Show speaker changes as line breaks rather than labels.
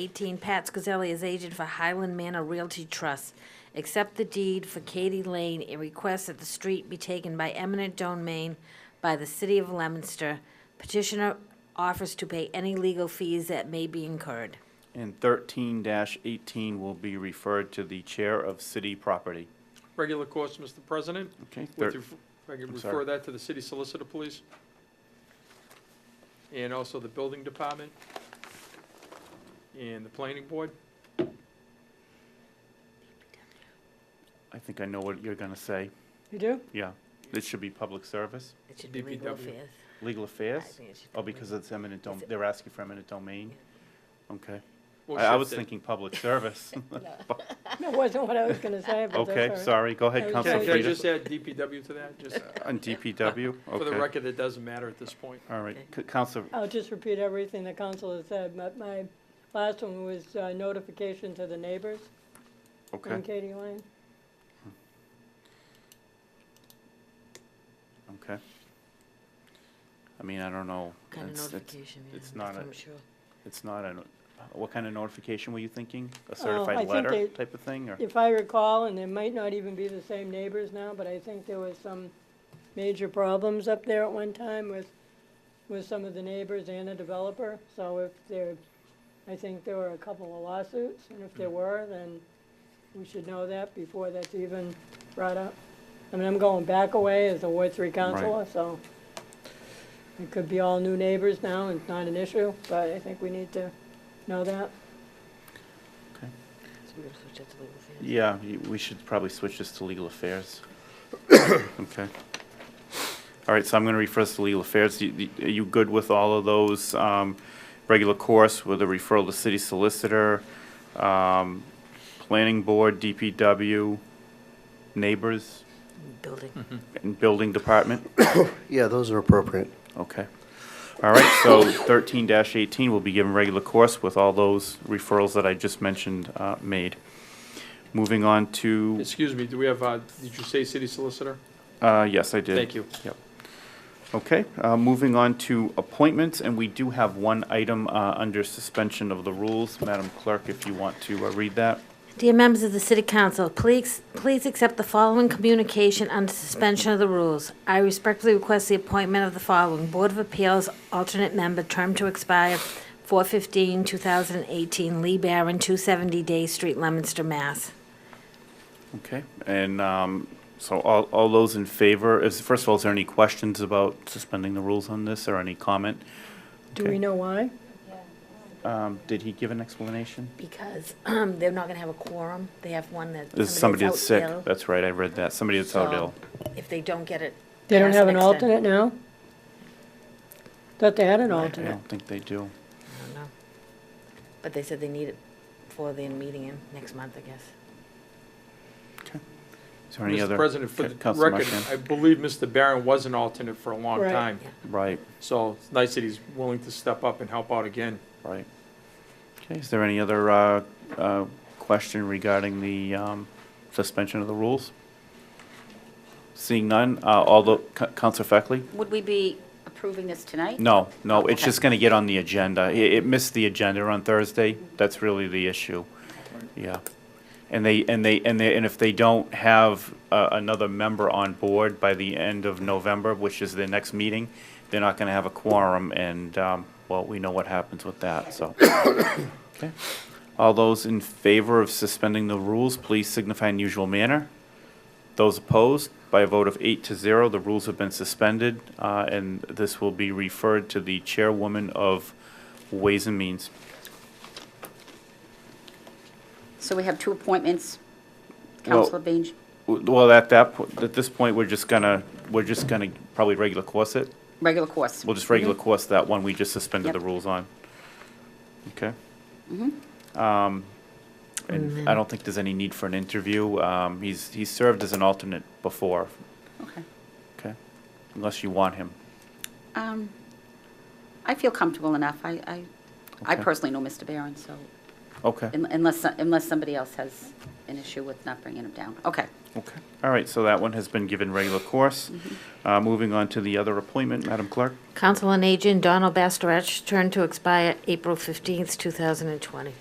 18, Pat Scazelli is agent for Highland Manor Realty Trust. Accept the deed for Katie Lane and request that the street be taken by eminent domain by the city of Leominster. Petitioner offers to pay any legal fees that may be incurred.
And thirteen eighteen will be referred to the Chair of City Property.
Regular course, Mr. President.
Okay,
Would
thir-
you- If I could
I'm sorry.
refer that to the city solicitor, please. And also the building department and the planning board.
I think I know what you're gonna say.
You do?
Yeah, this should be public service,
It should be legal
DPW.
fees.
legal
I
affairs.
think it should
Oh,
be
because
legal.
it's eminent dom, they're asking for eminent domain. Okay,
We'll
I, I
shift
was
it.
thinking public service.
That wasn't what I was gonna say, but that's all
Okay,
right.
sorry, go ahead,
Okay.
Can
Council
I- can I
Frida.
just add DPW to that? Just uh,
On DPW,
for the
okay.
record, it doesn't matter at this point.
All right, C- Council,
I'll just repeat everything the council has said, but my last one was uh, notification to the neighbors in
okay,
Katy Lane.
okay. I mean, I don't know.
Kind of
It's- it's-
notification, yeah.
it's not
that's
a-
what I'm sure.
It's not a, what kind of notification were you thinking? A
I
certified
think
letter
they-
type of thing, or?
If I recall, and it might not even be the same neighbors now, but I think there was some major problems up there at one time with, with some of the neighbors and a developer. So if there, I think there were a couple of lawsuits, and if there were, then we should know that before that's even brought up. I mean, I'm going back away as a Ward Three counselor, so it could be all new neighbors now, and it's not an issue, but I think we need to know that.
So we're gonna switch that to legal fees.
Yeah, y- we should probably switch this to legal affairs. Okay. All right, so I'm going to refer this to legal affairs. You- you- Are you good with all of those? um, Regular course with a referral to city solicitor, um, planning board, DPW, neighbors,
Building.
and building department?
Yeah, those are appropriate.
Okay. All right, so thirteen eighteen will be given regular course with all those referrals that I just mentioned uh, made. Moving on to,
Excuse me, do we have, uh, did you say city solicitor?
uh, yes, I did.
Thank you.
Okay, uh, moving on to appointments, and we do have one item uh, under suspension of the rules. Madam Clerk, if you want to uh, read that.
Dear members of the City Council, please, please accept the following communication under suspension of the rules. I respectfully request the appointment of the following Board of Appeals alternate member, term to expire 4/15/2018, Lee Barron, 270 Day Street, Leominster, Mass.
Okay, and um, so all all those in favor, is, first of all, is there any questions about suspending the rules on this, or any comment?
Do we
Okay.
know why?
Um, Did he give an explanation?
Because they're not going to have a quorum. They have one that.
There's somebody that's sick. That's right, I read that. Somebody that's out
So-
ill.
If they don't get it.
They don't
Yes,
have an
next time.
alternate now? Thought they had an
I I
alternate.
don't think they do.
I don't know. But they said they need it for the meeting in next month, I guess.
Is there any other?
Mr. President, for
Ca-
the
Councilor
record,
Marchand?
I believe Mr. Barron was an alternate for a long
Right.
time.
Right,
So it's nice that he's willing to step up and help out again.
right. Okay, is there any other uh, uh, question regarding the um, suspension of the rules? Seeing none, uh, although, Ca- Counselor Feckley?
Would we be approving this tonight?
No, no, it's
Okay.
just going to get on the agenda. I- It missed the agenda on Thursday. That's really the issue. Yeah. And they, and they, and they, and if they don't have uh, another member on board by the end of November, which is their next meeting, they're not going to have a quorum, and, um, well, we know what happens with that, so. Okay. All those in favor of suspending the rules, please signify in usual manner. Those opposed, by a vote of eight to zero, the rules have been suspended, uh, and this will be referred to the chairwoman of Ways and Means.
So we have two appointments,
Well-
Counselor Baines.
W- Well, at that, po- at this point, we're just gonna, we're just gonna probably regular course it.
regular course.
We'll just regular course that one we just suspended the
Yep.
rules on. Okay? Um, And I don't think there's any need for an interview. Um, He's, he's served as an alternate before,
Okay.
okay? Unless you want him.
Um, I feel comfortable enough. I, I, I
Okay.
personally know Mr. Barron, so
Okay.
un- unless, unless somebody else has an issue with not bringing him down. Okay.
Okay. All right, so that one has been given regular course. Uh, Moving on to the other appointment, Madam Clerk.
Council on Aging, Donald Bastarach, term to expire April 15th, 2020.